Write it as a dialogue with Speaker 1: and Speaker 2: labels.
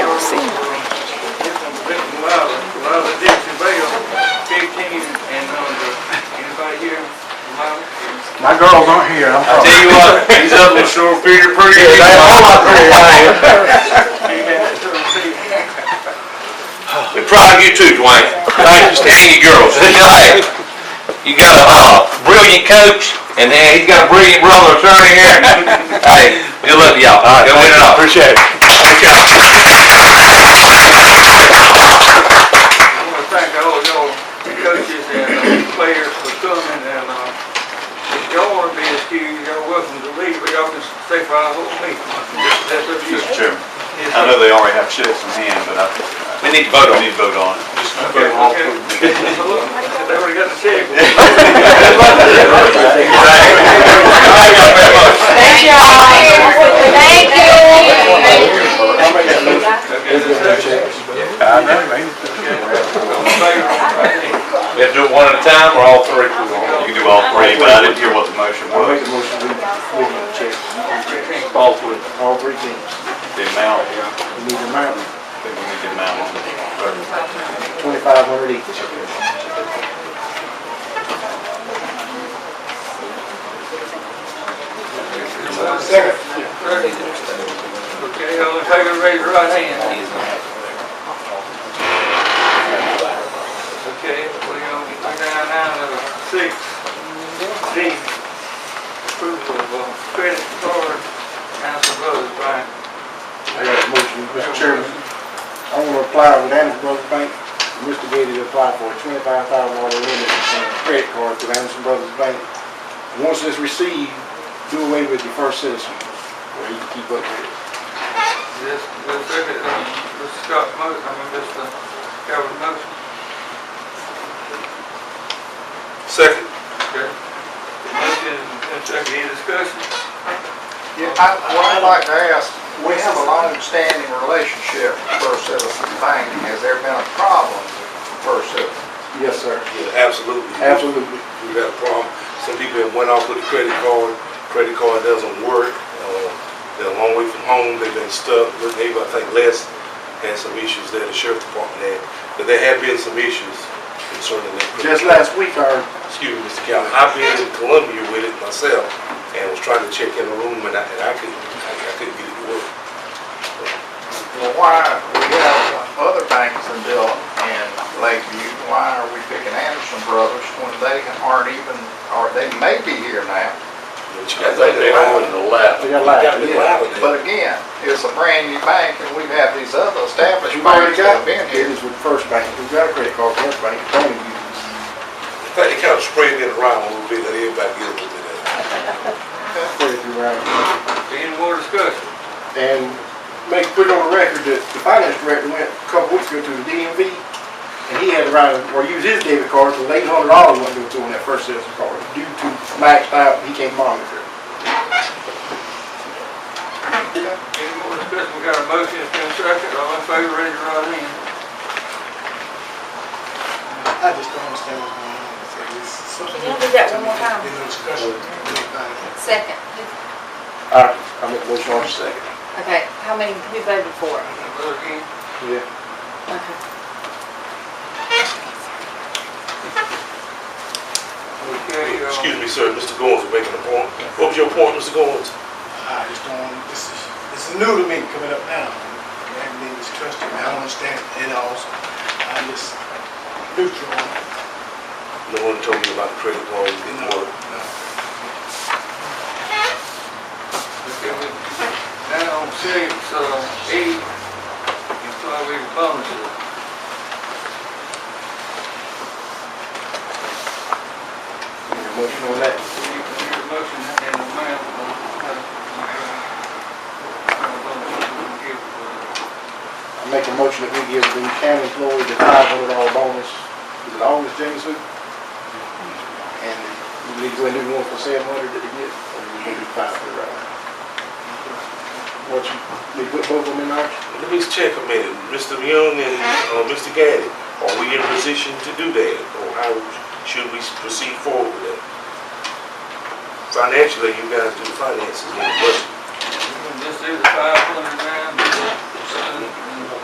Speaker 1: girls aren't here, I'm
Speaker 2: Tell
Speaker 1: sorry.
Speaker 2: you what, these other sure figure pretty.
Speaker 1: They all are pretty,
Speaker 2: We're proud of you too, Dwayne. Thank you. And you girls. Hey, You got a uh, brilliant coach, and then he's got a brilliant brother attorney here. Hey, good luck to y'all. All right, Go win it all.
Speaker 3: Appreciate it.
Speaker 4: I want to thank all y'all coaches and uh, players for coming and, uh, if y'all want to be excused, y'all welcome to leave, but y'all can stay for our whole meeting. That's up to you.
Speaker 3: Mr. Chairman,
Speaker 4: Yes,
Speaker 3: I
Speaker 4: sir.
Speaker 3: know they already have checks in hand, but I,
Speaker 2: We need to vote
Speaker 3: we
Speaker 2: on
Speaker 3: need
Speaker 2: it.
Speaker 3: to vote on it.
Speaker 4: Okay, okay. Well, look, They already got the check.
Speaker 2: Thank y'all very much.
Speaker 5: Thank y'all. Thank you.
Speaker 1: I know,
Speaker 2: We
Speaker 1: man.
Speaker 2: have to do it one at a time, or all three?
Speaker 3: You can do all three, but I didn't hear what the motion
Speaker 1: I'll make
Speaker 3: was,
Speaker 1: a motion to approve the check,
Speaker 3: All three.
Speaker 1: all three teams,
Speaker 3: the amount, I
Speaker 1: we need a mountain,
Speaker 3: think we need the amount on the,
Speaker 1: twenty-five hundred each.
Speaker 4: Second. Okay, all in favor, raise your right hand. Okay, we're on nine nine of six, D, approval of uh, credit card, Council Brothers, Brian.
Speaker 1: I got a motion, Mr. Chairman. I want to apply with Anderson Brothers Bank, Mr. Gady to apply for a twenty-five thousand dollar limit on a credit card through Anderson Brothers Bank. Once it's received, do away with your first citizen, where you keep up with it.
Speaker 4: This, this, second, uh, Mr. Scott motion, I mean, Mr. Calvin motion.
Speaker 2: Second.
Speaker 4: Okay. Motion and second, any discussion?
Speaker 6: Yeah, I, what I'd like to ask, we have a long-standing relationship with First Citizen Bank. Has there been a problem with First Citizen?
Speaker 1: Yes, sir.
Speaker 7: Yeah, absolutely.
Speaker 1: Absolutely.
Speaker 7: We got a problem. Some people have went off with a credit card, credit card doesn't work. Uh, They're a long way from home, they've been stuck. But Maybe I think Les had some issues there, the sheriff department had. But there have been some issues concerning that. credit
Speaker 1: Just
Speaker 7: card.
Speaker 1: last week, our
Speaker 7: Excuse me, Mr. Calvin, I've been in Columbia with it myself and was trying to check in the room and I, and I couldn't, I I couldn't get it to work.
Speaker 6: Well, why, we have other banks in Dillon and Lakeview, why are we picking Anderson Brothers when they aren't even, or they may be here now?
Speaker 7: I think they own the lab.
Speaker 1: They got live.
Speaker 6: But again, it's a brand-new bank and we have these other established
Speaker 1: You've already got,
Speaker 6: banks that have been
Speaker 1: it
Speaker 6: here.
Speaker 1: is with First Bank, we've got a credit card, First Bank, don't use.
Speaker 7: I think they kind of sprayed it around a little bit, let everybody get a little bit of it.
Speaker 1: Put it through our-
Speaker 4: Any more discussion?
Speaker 1: and make, put it on record that the finance director went a couple weeks ago to the DMV, and he had to write, or use his debit card, so eight hundred dollars went to it on that first citizen card, due to maxed out, he can't monitor. it.
Speaker 4: Any more discussion? We got a motion, it's been seconded, all in favor, raise your right hand.
Speaker 8: I just don't understand what's going on. It's like, it's something-
Speaker 5: Can you do that one more time?
Speaker 8: Been no discussion. Anybody.
Speaker 5: Second.
Speaker 1: All right, I'm at motion on second.
Speaker 5: Okay, how many, who voted for it?
Speaker 4: Vote again.
Speaker 1: Yeah.
Speaker 5: Okay.
Speaker 4: Okay, uh,
Speaker 7: Excuse me, sir, Mr. Goins is making a point. What was your point, Mr. Goins?
Speaker 8: I just don't, this is, this is new to me coming up now. I haven't been distrusted, I don't understand it at all. so I'm just neutral. on it.
Speaker 7: No one told me about the credit card, it didn't work.
Speaker 4: okay, we- Now, on six, uh, eight, employee bonuses.
Speaker 1: Motion on that.
Speaker 4: We need to hear a motion and a amount of, uh, uh, bonuses we give, uh,
Speaker 1: I make a motion that we give the county employees a five hundred dollar bonus, is it August, Jameson? And we need to go and do one for seven hundred that they get, or we need to do five for the right? What you, we put both of them in our,
Speaker 7: Let me check a minute, Mr. Young and, uh, Mr. Gaddy, are we in a position to do that? Or how should we proceed forward with that? Financially, you guys do the finances, but
Speaker 4: This is five hundred nine, uh, and